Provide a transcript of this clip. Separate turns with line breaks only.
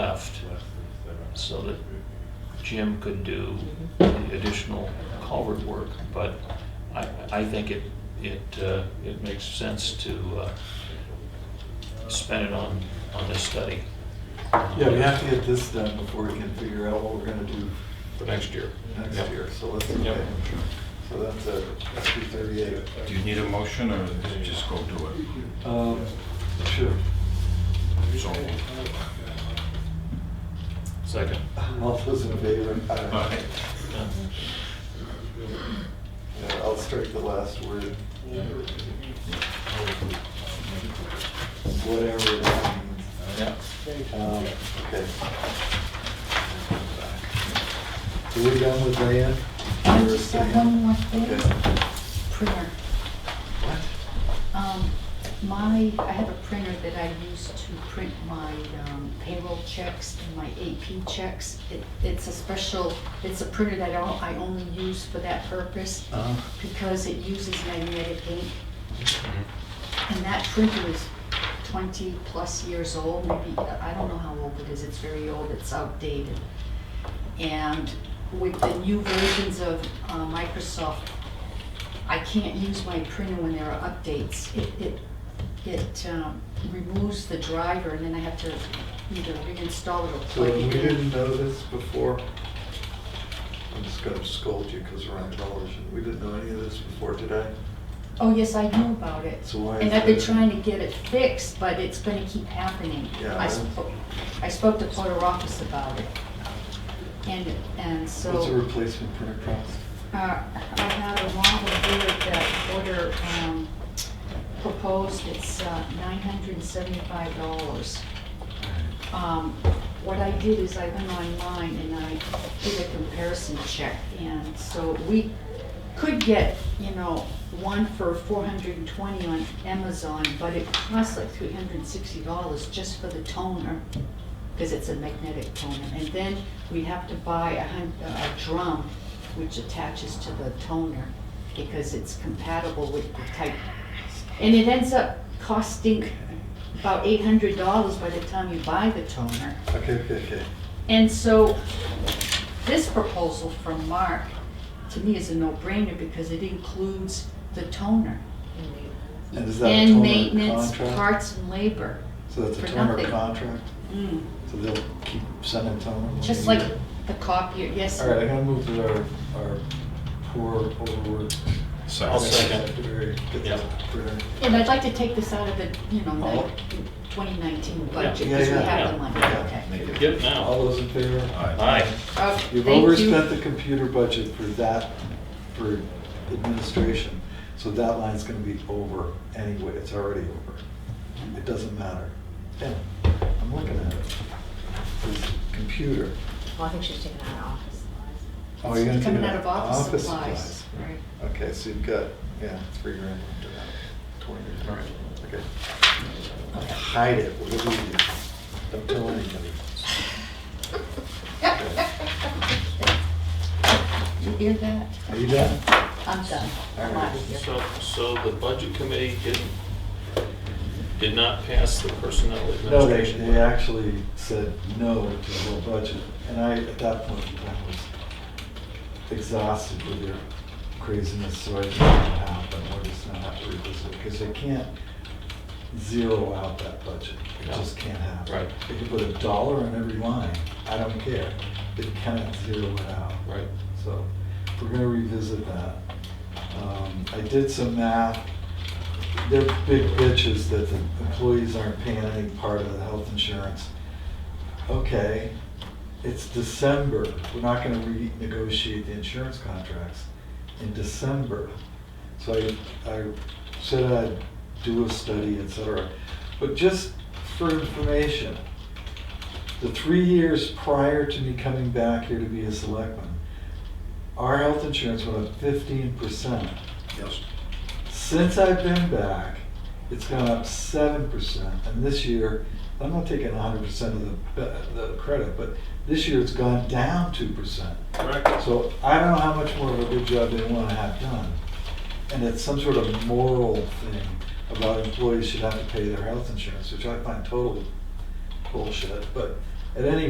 left so that Jim could do the additional culvert work. But I, I think it, it, uh, it makes sense to uh, spend it on, on this study.
Yeah, we have to get this done before we can figure out what we're gonna do
for next year.
next
Yep.
year, so let's,
Yep.
so that's a, that's two thirty-eight.
Do you need a motion or just go do it?
Um, sure,
So, moved.
Second.
all those in favor?
all
Aye.
right.
Yeah.
Yeah, I'll strike the last word. Whatever that means.
Yeah.
Um, Okay. So we're done with Diane?
I just have one more thing,
Okay.
printer.
What?
Um, My, I have a printer that I use to print my um, payroll checks and my AP checks. It- It's a special, it's a printer that I don't- I only use for that purpose
Uh,
because it uses magnetic ink. And that printer is twenty-plus years old, maybe, I don't know how old it is, it's very old, it's outdated. And with the new versions of uh, Microsoft, I can't use my printer when there are updates. It, it, it um, removes the driver, and then I have to either reinstall it or
So
plug
we
it in.
didn't know this before. I'm just gonna scold you because we're on television. We didn't know any of this before today.
Oh, yes, I know about it.
So why
And
is
I've been
it-
trying to get it fixed, but it's gonna keep happening.
Yeah.
I spoke, I spoke to Porter Office about it. And, and so.
What's a replacement printer cost?
Uh, I had a model here that Porter, um, proposed, it's uh, nine hundred and seventy-five dollars. Um, what I did is I went online and I did a comparison check, and so we could get, you know, one for four hundred and twenty on Amazon, but it costs like three hundred and sixty dollars just for the toner, because it's a magnetic toner, and then we have to buy a hun, a drum which attaches to the toner, because it's compatible with the type. And it ends up costing about eight hundred dollars by the time you buy the toner.
Okay, okay, okay.
And so, this proposal from Mark, to me, is a no-brainer because it includes the toner.
And is that a toner
And maintenance,
contract?
parts and labor.
So that's a
For
toner
nothing.
contract?
Mm,
So they'll keep sending toner?
Just like the copier, yes.
All right, I'm gonna move to our, our poor overworked.
I'll second.
secretary, Get this printer.
And I'd like to take this out of the, you know,
Oh.
twenty nineteen
Yeah,
budget, because we
yeah,
have
yeah.
the money,
Yeah.
okay.
Make it-
Get it now.
All those in favor?
All right.
Aye.
Oh, thank you.
You've overspent the computer budget for that, for administration, so that line's gonna be over anyway, it's already over. It doesn't matter. Yeah, I'm looking at it. It's computer.
Well, I think she's taken out of office.
Oh, you're gonna
It's
take
Coming
it
out of office supplies,
supplies.
right.
Okay, so you've got, yeah, three grand left of that, twenty grand. Okay. Hide it, whatever you do. Don't tell anybody.
You hear that?
Are you done?
I'm done. I'm out of here.
So, so the budget committee didn't, did not pass the personnel
No, they,
administration.
they actually said no to the whole budget, and I, at that point, in time was exhausted with their craziness, so I just said, "Ah, but we're just gonna have to revisit, because they can't zero out that budget, it
No.
just can't happen.
Right.
They could put a dollar on every line, I don't care, they cannot zero it out.
Right.
So, we're gonna revisit that. Um, I did some math, they're big bitches that the employees aren't paying any part of the health insurance. Okay, it's December, we're not gonna renegotiate the insurance contracts in December. So I, I said I'd do a study, et cetera. But just for information, the three years prior to me coming back here to be a selectman, our health insurance went up fifteen percent.
Yes.
Since I've been back, it's gone up seven percent, and this year, I'm not taking hundred percent of the, the credit, but this year it's gone down two percent.
Correct.
So I don't know how much more of a good job they want to have done. And it's some sort of moral thing about employees should have to pay their health insurance, which I find total bullshit, but at any